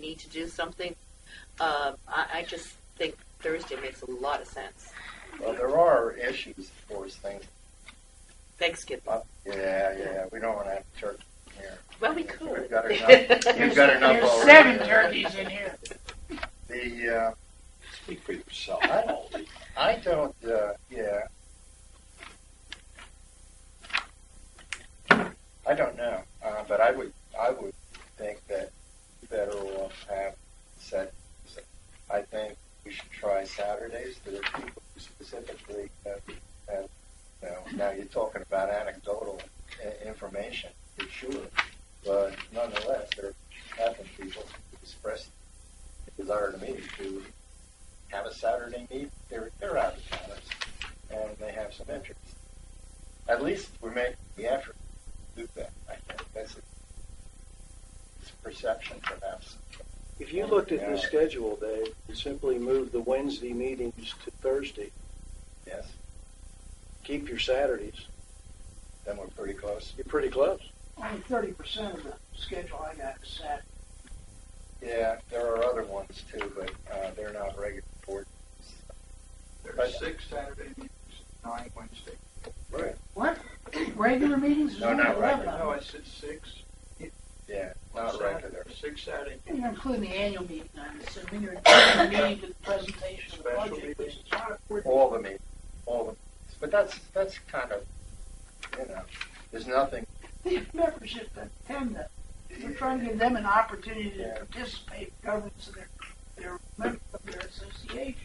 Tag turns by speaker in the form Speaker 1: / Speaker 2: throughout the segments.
Speaker 1: need to do something. Uh, I, I just think Thursday makes a lot of sense.
Speaker 2: Well, there are issues, of course, things.
Speaker 1: Thanksgiving.
Speaker 2: Up. Yeah, yeah, we don't want to have turkey here.
Speaker 1: Well, we
Speaker 2: We've
Speaker 1: could.
Speaker 2: got enough. You've got enough
Speaker 3: There's
Speaker 2: already.
Speaker 3: seven turkeys in here.
Speaker 2: The, uh,
Speaker 4: Speak for yourself.
Speaker 2: I don't, I don't, uh, yeah. I don't know, uh, but I would, I would think that federal have set, I think we should try Saturdays, there are people who specifically, uh, have, you know, now you're talking about anecdotal i- information, for sure, but nonetheless, there have been people who expressed a desire to me to have a Saturday meet. They're they're out of town, and they have some interest. At least we make the effort to do that. I think that's a, it's a perception, perhaps.
Speaker 5: If you looked at the schedule, Dave, and simply moved the Wednesday meetings to Thursday,
Speaker 2: Yes,
Speaker 5: keep your Saturdays,
Speaker 2: then we're pretty close.
Speaker 5: you're pretty close.
Speaker 3: Only thirty percent of the schedule I got is Saturday.
Speaker 2: Yeah, there are other ones too, but uh, they're not regular board.
Speaker 6: There's six Saturday meetings, nine Wednesday.
Speaker 2: Right.
Speaker 3: What? Regular meetings is
Speaker 2: No,
Speaker 3: only
Speaker 2: not
Speaker 3: eleven.
Speaker 2: regular.
Speaker 6: No,
Speaker 3: of
Speaker 6: I
Speaker 3: them.
Speaker 6: said six.
Speaker 2: Yeah, not regular.
Speaker 6: Six Saturday
Speaker 3: You're including the annual meeting, I'm assuming, or the meeting with the presentation of the
Speaker 6: Special
Speaker 3: budget, which
Speaker 6: meeting.
Speaker 3: is not a board
Speaker 2: All the meetings, all the. Meetings. But that's that's kind of you know. There's nothing.
Speaker 3: The membership that attend them. We're trying to give them an opportunity to
Speaker 2: Yeah.
Speaker 3: participate in governance of their, their member of their association.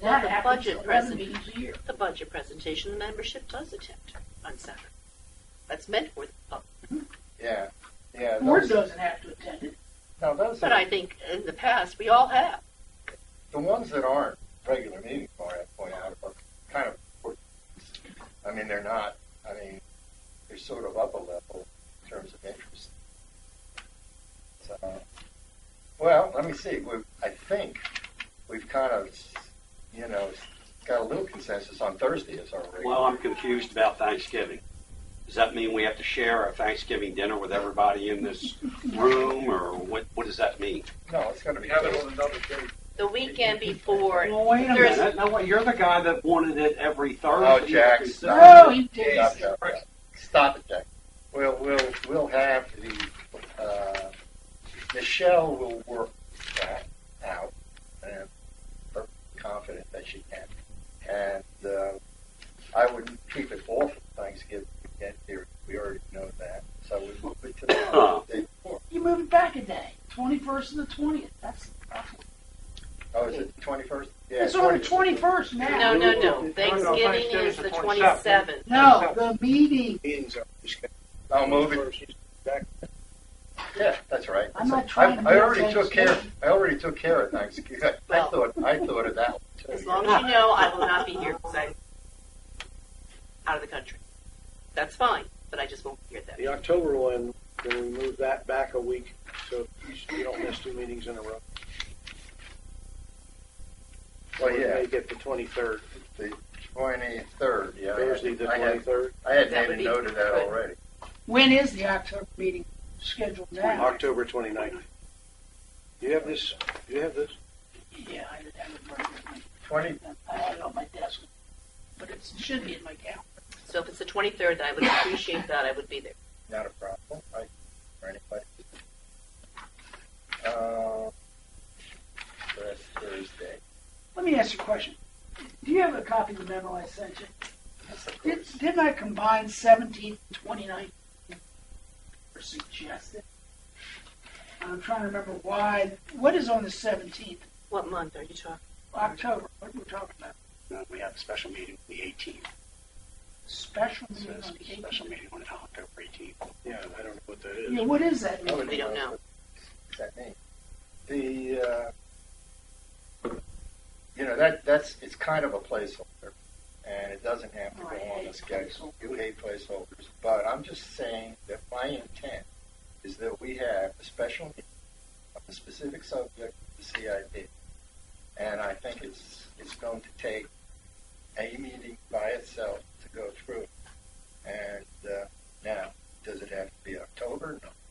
Speaker 1: Well, the
Speaker 3: That happens
Speaker 1: budget
Speaker 3: eleven
Speaker 1: present-
Speaker 3: meetings a year.
Speaker 1: The budget presentation, the membership does attend on Saturday. That's meant for the public.
Speaker 2: Yeah, yeah.
Speaker 3: Board
Speaker 2: those-
Speaker 3: doesn't have to attend it.
Speaker 2: No, those
Speaker 1: But
Speaker 2: are-
Speaker 1: I think in the past, we all have.
Speaker 2: The ones that aren't regular meeting for I point out, are kind of important. I mean, they're not, I mean, they're sort of up a level in terms of interest. So, well, let me see, we, I think we've kind of, you know, got a little consensus on Thursday as our regular.
Speaker 4: Well, I'm confused about Thanksgiving. Does that mean we have to share a Thanksgiving dinner with everybody in this room, or what, what does that mean?
Speaker 2: No, it's gonna be.
Speaker 6: We have it on another day.
Speaker 1: The weekend before,
Speaker 3: Well, wait a
Speaker 1: There's-
Speaker 3: minute.
Speaker 4: No, what, you're the guy that wanted it every
Speaker 2: Oh,
Speaker 4: Thursday.
Speaker 2: Jack,
Speaker 3: No,
Speaker 2: stop
Speaker 3: he
Speaker 2: it,
Speaker 3: did.
Speaker 2: stop it, Jack. stop it, Jack. We'll, we'll, we'll have the, uh, Michelle will work that out, and I'm confident that she can. And, uh, I wouldn't keep it all for Thanksgiving weekend here, we already know that, so we move it to the day before.
Speaker 3: You move it back a day, twenty-first and the twentieth. That's
Speaker 2: Oh, is it the twenty-first?
Speaker 3: it's on the twenty-first now.
Speaker 1: no, no, no, Thanksgiving is the 27th.
Speaker 3: No, the meeting.
Speaker 5: Meetings are scheduled.
Speaker 2: I'll move it, yeah, that's right.
Speaker 3: I'm not
Speaker 2: I-
Speaker 3: trying to
Speaker 2: I
Speaker 3: be
Speaker 2: already took care,
Speaker 3: Thanksgiving.
Speaker 2: I already took care of Thanksgiving, I
Speaker 1: Well.
Speaker 2: thought, I thought of that one too.
Speaker 1: As long as you know, I will not be here because I'm out of the country. That's fine, but I just won't be here then.
Speaker 5: The October one, then we move that back a week, so you don't miss two meetings in a row.
Speaker 2: Well,
Speaker 5: We
Speaker 2: yeah.
Speaker 5: may get the twenty-third,
Speaker 2: The twenty-third, yeah. I had-
Speaker 5: Thursday the
Speaker 2: I had-
Speaker 5: twenty-third,
Speaker 2: I had
Speaker 1: That
Speaker 2: made
Speaker 1: would
Speaker 2: a
Speaker 1: be
Speaker 2: note of that
Speaker 1: good.
Speaker 2: already.
Speaker 3: When is the October meeting scheduled now?
Speaker 5: October twenty-ninth. Do you have this, do you have this?
Speaker 3: Yeah, I didn't have it marked with me.
Speaker 2: Twenty,
Speaker 3: I had it on my desk, but it's- it should be in my calendar.
Speaker 1: So if it's the 23rd, I would appreciate that. I would be there.
Speaker 2: not a problem, I, for anybody. Uh, that's Thursday.
Speaker 3: Let me ask you a question. Do you have a copy of the memo I sent you?
Speaker 2: Yes, of
Speaker 3: Did-
Speaker 2: course.
Speaker 3: Didn't I combine seventeenth and twenty-ninth? Or suggested? I'm trying to remember why, what is on the seventeenth,
Speaker 1: What month are you talking?
Speaker 3: October? What are we talking about?
Speaker 7: We have a special meeting on the 18th.
Speaker 3: Special
Speaker 7: It's
Speaker 3: meeting on the
Speaker 7: a Special
Speaker 3: eighteenth?
Speaker 7: meeting on October 18th.
Speaker 5: Yeah, I don't know what that is.
Speaker 3: Yeah, what is that?
Speaker 2: I would
Speaker 1: We don't know.
Speaker 2: Is that me? The, uh, you know, that, that's, it's kind of a placeholder, and it doesn't have to
Speaker 3: Oh,
Speaker 2: go
Speaker 3: I
Speaker 2: on the
Speaker 3: hate
Speaker 2: schedule. You hate placeholders, but I'm just saying that my intent is that we have a special meeting of a specific subject, of the CIP, and I think it's, it's going to take a meeting by itself to go through. And, uh, now, does it have to be October? No.